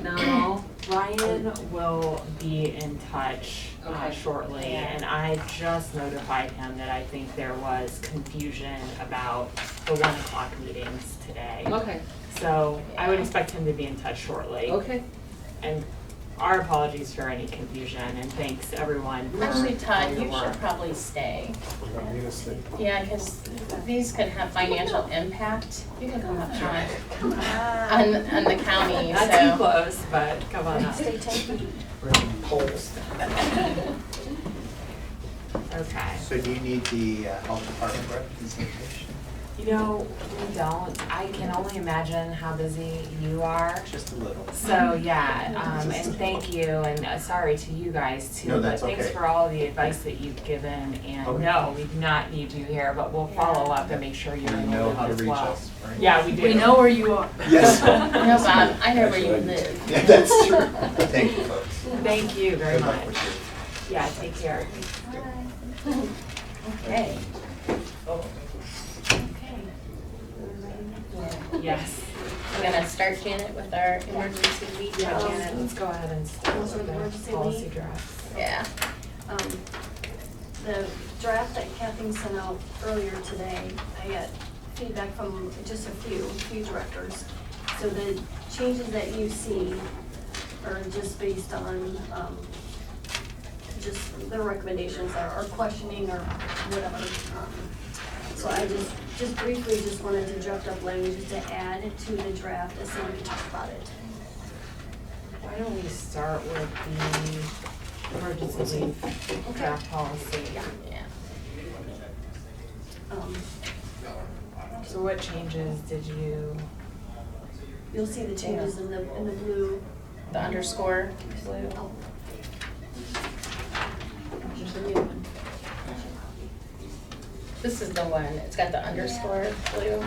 Ryan will be in touch uh, Okay. shortly, Yeah. and I just notified him that I think there was confusion about the one o'clock meetings today. Okay, So I would expect him to be in touch shortly. okay. And our apologies for any confusion, and thanks everyone for all Actually, Todd, your you should work. probably stay. We're gonna need a state. Yeah, because these could have financial impact. You can come up, Todd. On, on the county, Not too so. close, but come on up. We're gonna need polls. Okay. So do you need the uh, health department representation? You know, we don't, I can only imagine how busy you are. Just a little. So, yeah, um, and thank you, and uh, sorry to you guys too. No, that's But thanks okay. for all the advice that you've given, and Okay. no, we do not need you here, but we'll follow up and make sure Do you're you in the know how to loop as reach well. us? right? Yeah, we do. We know where you are. Yes. No, Bob, I know where you live. Yeah, that's true. Thank you, folks. Thank you very Good luck much. with your Yeah, take care. Okay. Yes. We're gonna start Janet with our emergency lead. Yeah, Janet, let's go ahead and start Those are with the the emergency policy leave. draft. Yeah. Um, The draft that Kathleen sent out earlier today, I got feedback from just a few, few directors. So the changes that you see are just based on, um, just their recommendations or or questioning or whatever. Um, So I just, just briefly just wanted to draft up language to add to the draft as soon as we talk about it. Why don't we start with the emergency leave draft policy? Yeah. Um, So what changes did you? You'll see the changes in the, in the blue. The underscore. Oh, This is the one. It's got the underscore blue.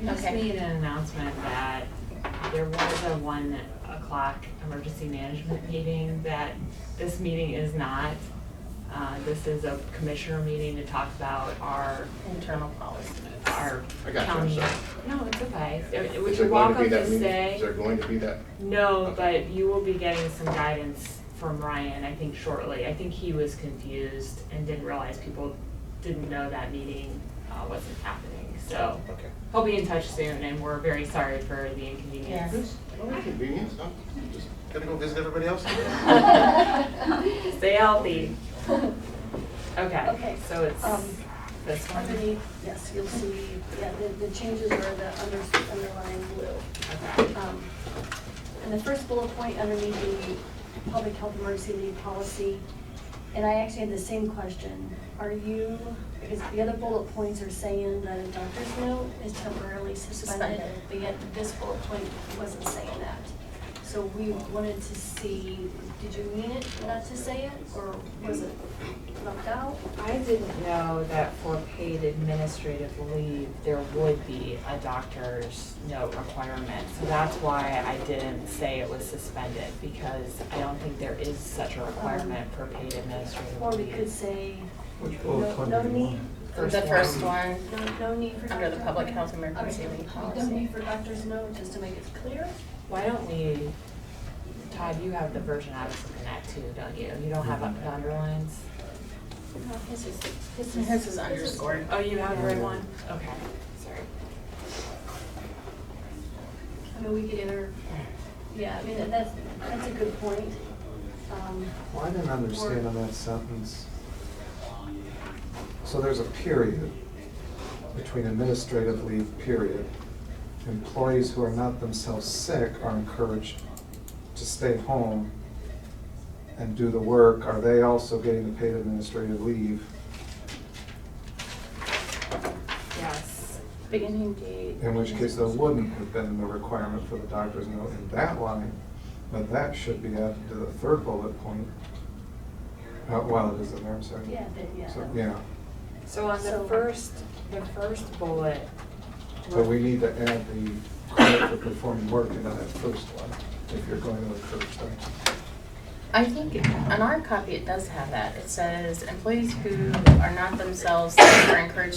We just Okay. made an announcement that there was a one o'clock emergency management meeting, that this meeting is not. Uh, this is a commissioner meeting to talk about our, Internal policy. our I got you, I'm county. sorry. No, it's okay. Would Is you there going walk to be up that to meeting? say? Is there going to be that? No, but you will be getting some guidance from Ryan, I think shortly. I think he was confused and didn't realize people didn't know that meeting uh, wasn't happening. So Okay. he'll be in touch soon and we're very sorry for the inconvenience. Well, Convenience, I'm just gonna go visit everybody else. Stay healthy. Okay, Okay, so it's um, this one. Underneath, yes, you'll see, yeah, the, the changes are the under, underlying blue. Okay. Um, And the first bullet point underneath the public health emergency leave policy, and I actually had the same question. Are you, because the other bullet points are saying that a doctor's note is temporarily suspended, Suspended. but yet this bullet point wasn't saying that. So we wanted to see, did you mean it not to say it, or was it left out? I didn't know that for paid administrative leave, there would be a doctor's note requirement. So that's why I didn't say it was suspended, because I don't think there is such a requirement for paid administrative Or we could leave. say, Which bullet no, point no do you need, want? The first one, no, no need for. under the doctor- public health emergency Okay, leave No policy. need for doctor's note, just to make it clear. Why don't we, Todd, you have the version I was looking at too, don't you? You don't have the underlines? No, This is, this is. This is underscored. Oh, you have the right one? Okay, sorry. I mean, we could either, yeah, I mean, that's, that's a good point. Um, Well, I didn't understand on that sentence. So there's a period between administrative leave period. Employees who are not themselves sick are encouraged to stay home and do the work. Are they also getting the paid administrative leave? Yes. Beginning date. In which case, there wouldn't have been the requirement for the doctor's note in that line, but that should be added to the third bullet point. Uh, Well, it is in there, I'm sorry. yeah, then, yeah. So, yeah, So on the So- first, the first bullet. but we need to add the credit for performing work into that first one, if you're going to encourage that. I think on our copy, it does have that. It says employees who are not themselves are encouraged